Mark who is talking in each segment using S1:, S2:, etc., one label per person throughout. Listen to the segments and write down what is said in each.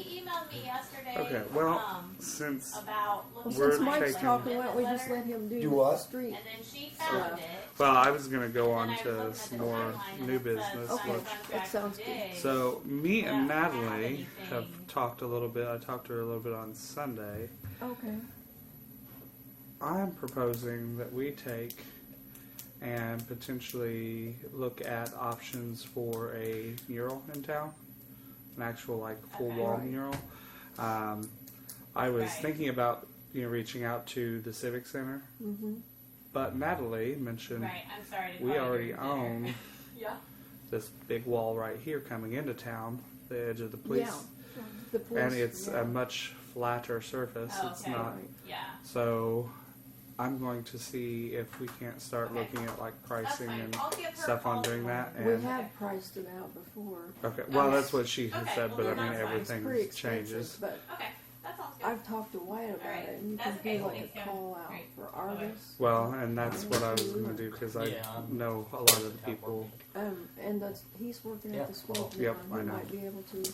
S1: emailed me yesterday.
S2: Okay, well,
S1: um,
S2: since,
S1: About looking
S2: We're
S1: at
S3: Since Mike's
S2: taking-
S3: talking, why don't we just let him do
S4: Do what?
S3: the street?
S1: And then she found it.
S2: well, I was gonna go
S1: and
S2: on
S1: I was looking
S2: to
S1: at
S2: some
S1: the
S2: more
S1: timeline, and
S2: new
S1: it says
S2: business,
S1: signed
S3: Okay.
S2: which
S1: contract
S3: That sounds good.
S1: today.
S2: So me and
S1: Yeah, I don't have
S2: Natalie have
S1: anything.
S2: talked a little bit. I talked to her a little bit on Sunday.
S3: Okay.
S2: I'm proposing that we take and potentially look at options for a mural in town, an actual like full
S1: Okay.
S2: wall
S3: Right.
S2: mural. Um, I was
S1: Right.
S2: thinking about you know reaching out to the civic center,
S3: Mm-hmm.
S2: but Natalie mentioned
S1: Right, I'm sorry to
S2: we
S1: call you
S2: already
S1: dinner.
S2: own
S1: Yeah.
S2: this big wall right here coming into town, the edge of the police.
S3: Yeah. The police.
S2: and it's
S3: yeah.
S2: a much flatter surface.
S1: Oh,
S2: It's
S1: okay.
S2: not
S3: Right.
S1: Yeah.
S2: so. I'm going to see if we can't start
S1: Okay.
S2: looking at like
S1: That's
S2: pricing
S1: fine. Oh.
S2: and
S1: I'll give her
S2: stuff
S1: a
S2: on
S1: call
S2: doing that.
S1: tomorrow.
S3: We
S2: And
S3: have priced it out before.
S2: okay, well,
S1: Okay.
S2: that's what she has
S1: Okay,
S2: said,
S1: well,
S2: but
S1: then
S2: I mean
S1: that's fine.
S3: It's pretty
S2: everything
S3: expensive,
S2: changes.
S3: But
S1: Okay, that sounds good.
S3: I've talked to Wyatt about
S1: Alright,
S3: it, and you
S1: that's
S3: can
S1: okay,
S3: do like
S1: thanks,
S3: a
S1: yeah.
S3: call out
S1: Great.
S3: for
S1: Bye-bye.
S3: artists.
S2: Well, and that's what I was going to do because I
S5: Yeah, I'm-
S2: know a lot of the people.
S3: Um, and that's, he's working
S5: Yeah.
S3: at the school now.
S2: Yep, I
S3: He
S2: know.
S3: might be able to.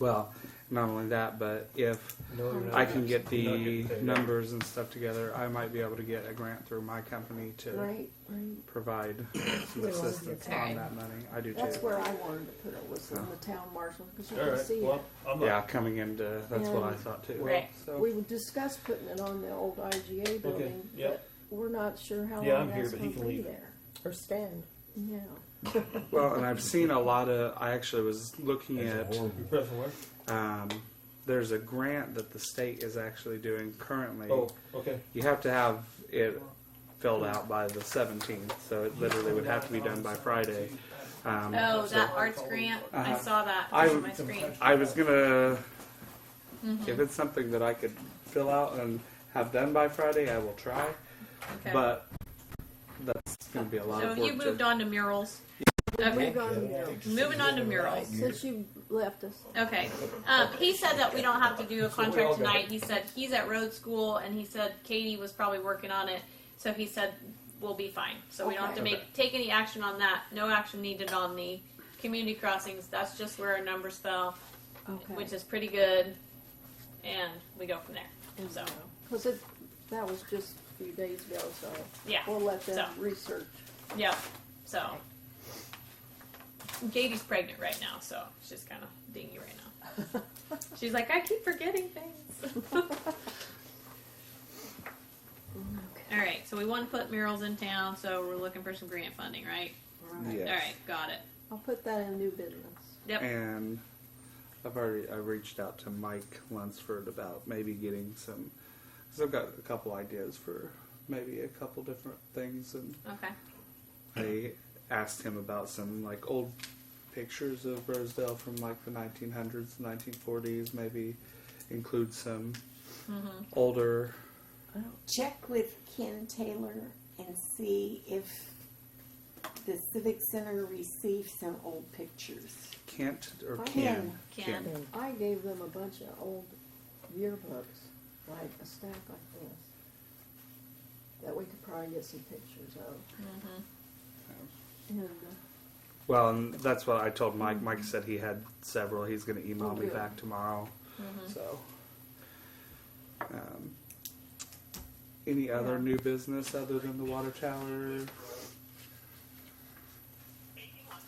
S2: Well, not only that, but if
S5: No, you're not.
S2: I can get
S5: You're not
S2: the
S5: getting paid.
S2: numbers and stuff together, I might be able to get a grant through my company to
S3: Right, right.
S2: provide some
S3: Well,
S2: assistance
S1: okay.
S2: on that money. I do
S3: That's
S2: too.
S3: where I wanted to put it was in the town marshal because you
S5: All
S3: can
S5: right.
S3: see
S5: Well,
S3: it.
S5: I'm
S2: Yeah,
S5: not.
S2: coming into that's what I thought too.
S5: Well,
S1: Right.
S2: So
S3: We discussed putting it on the old IGA building, but
S5: yep.
S3: we're not sure how
S5: Yeah,
S3: long
S5: I'm here,
S3: that's
S5: but he
S3: going to
S5: can
S3: be
S5: leave.
S3: there.
S6: Or stand.
S3: Yeah.
S2: well, and I've seen a lot of. I actually was looking at.
S5: Press one.
S2: Um, there's a grant that the state is actually doing currently.
S5: Oh, okay.
S2: You have to have it filled out by the 17th, so it literally would have to be done by Friday. Um,
S1: Oh,
S2: so
S1: that arts grant. I
S2: Uh-huh.
S1: saw that
S2: I-
S1: on my screen. Mm-hmm.
S2: I was gonna. If it's something that I could fill out and have done by Friday, I will try.
S1: Okay.
S2: But that's gonna be a lot
S1: so
S2: of work.
S1: you
S2: to-
S1: moved on to murals.
S3: We're
S1: Okay.
S3: going to,
S1: Moving on to murals.
S3: since you left us,
S1: Okay. Um, he said that we don't have to do a
S5: we all
S1: contract
S5: got
S1: tonight. He said he's at road school, and he said Katie was probably working on it. So he said we'll be fine. So we don't have to
S2: Okay.
S1: make take any action on that. No action needed on the community crossings. That's just where our numbers fell,
S3: okay,
S1: which is pretty good, and we go from there. So
S3: because it, that was just a few days ago, so
S1: yeah,
S3: we'll let them
S1: So.
S3: research.
S1: yep. So Katie's pregnant right now, so she's kind of dingy right now. She's like, I keep forgetting things. All right, so we want to put murals in town, so we're looking for some grant funding, right?
S3: Right.
S2: Yes.
S1: All right, got it.
S3: I'll put that in new business.
S1: Yep.
S2: And I've already I reached out to Mike Lunsford about maybe getting some. Cause I've got a couple ideas for maybe a couple different things, and
S1: okay.
S2: I asked him about some like old pictures of Rosedale from like the 1900s, 1940s. Maybe include some older.
S6: Check with Ken Taylor and see if the Civic Center received some old pictures.
S2: Can't or
S3: I
S2: can
S3: am.
S1: Can.
S3: I gave them a bunch of old yearbooks, like a stack like this, that we could probably get some pictures of.
S1: Mm-hmm.
S3: And uh,
S2: Well, and that's what I told Mike.
S1: Mm-hmm.
S2: Mike said he had several. He's going to email
S3: Oh,
S2: me
S3: good.
S2: back tomorrow.
S1: Mm-hmm.
S2: So, um, any other
S3: Yeah.
S2: new business other than the water tower?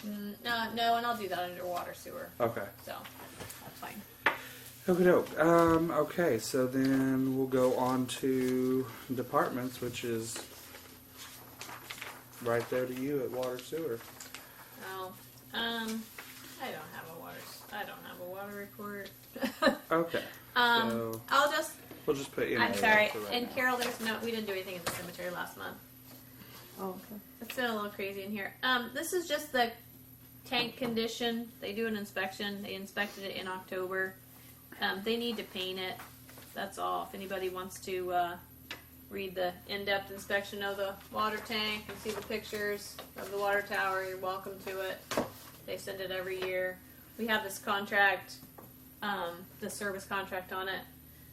S1: Mm, no, no, and I'll do that under water sewer.
S2: Okay.
S1: So that's fine.
S2: Okay, doke. Um, okay, so then we'll go on to departments, which is right there to you at water sewer.
S1: Oh, um, I don't have a water. s- I don't have a water report.
S2: Okay.
S1: um,
S2: So-
S1: I'll just.
S2: We'll just put in.
S1: I'm sorry.
S2: For right
S1: And
S2: now.
S1: Carol, there's no. We didn't do anything in the cemetery last month.
S3: Oh, okay.
S1: It's been a little crazy in here. Um, this is just the tank condition. They do an inspection. They inspected it in October. Um, they need to paint it. That's all. If anybody wants to uh, read the in-depth inspection of the water tank and see the pictures of the water tower, you're welcome to it. They send it every year. We have this contract, um, the service contract on it,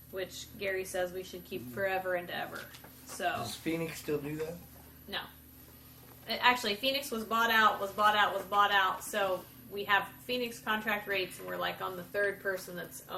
S1: which Gary says we should keep forever and ever. So.
S5: Does Phoenix still do that?
S1: No. Uh, Actually, Phoenix was bought out, was bought out, was bought out. So we have Phoenix contract rates, and we're like on the third person that's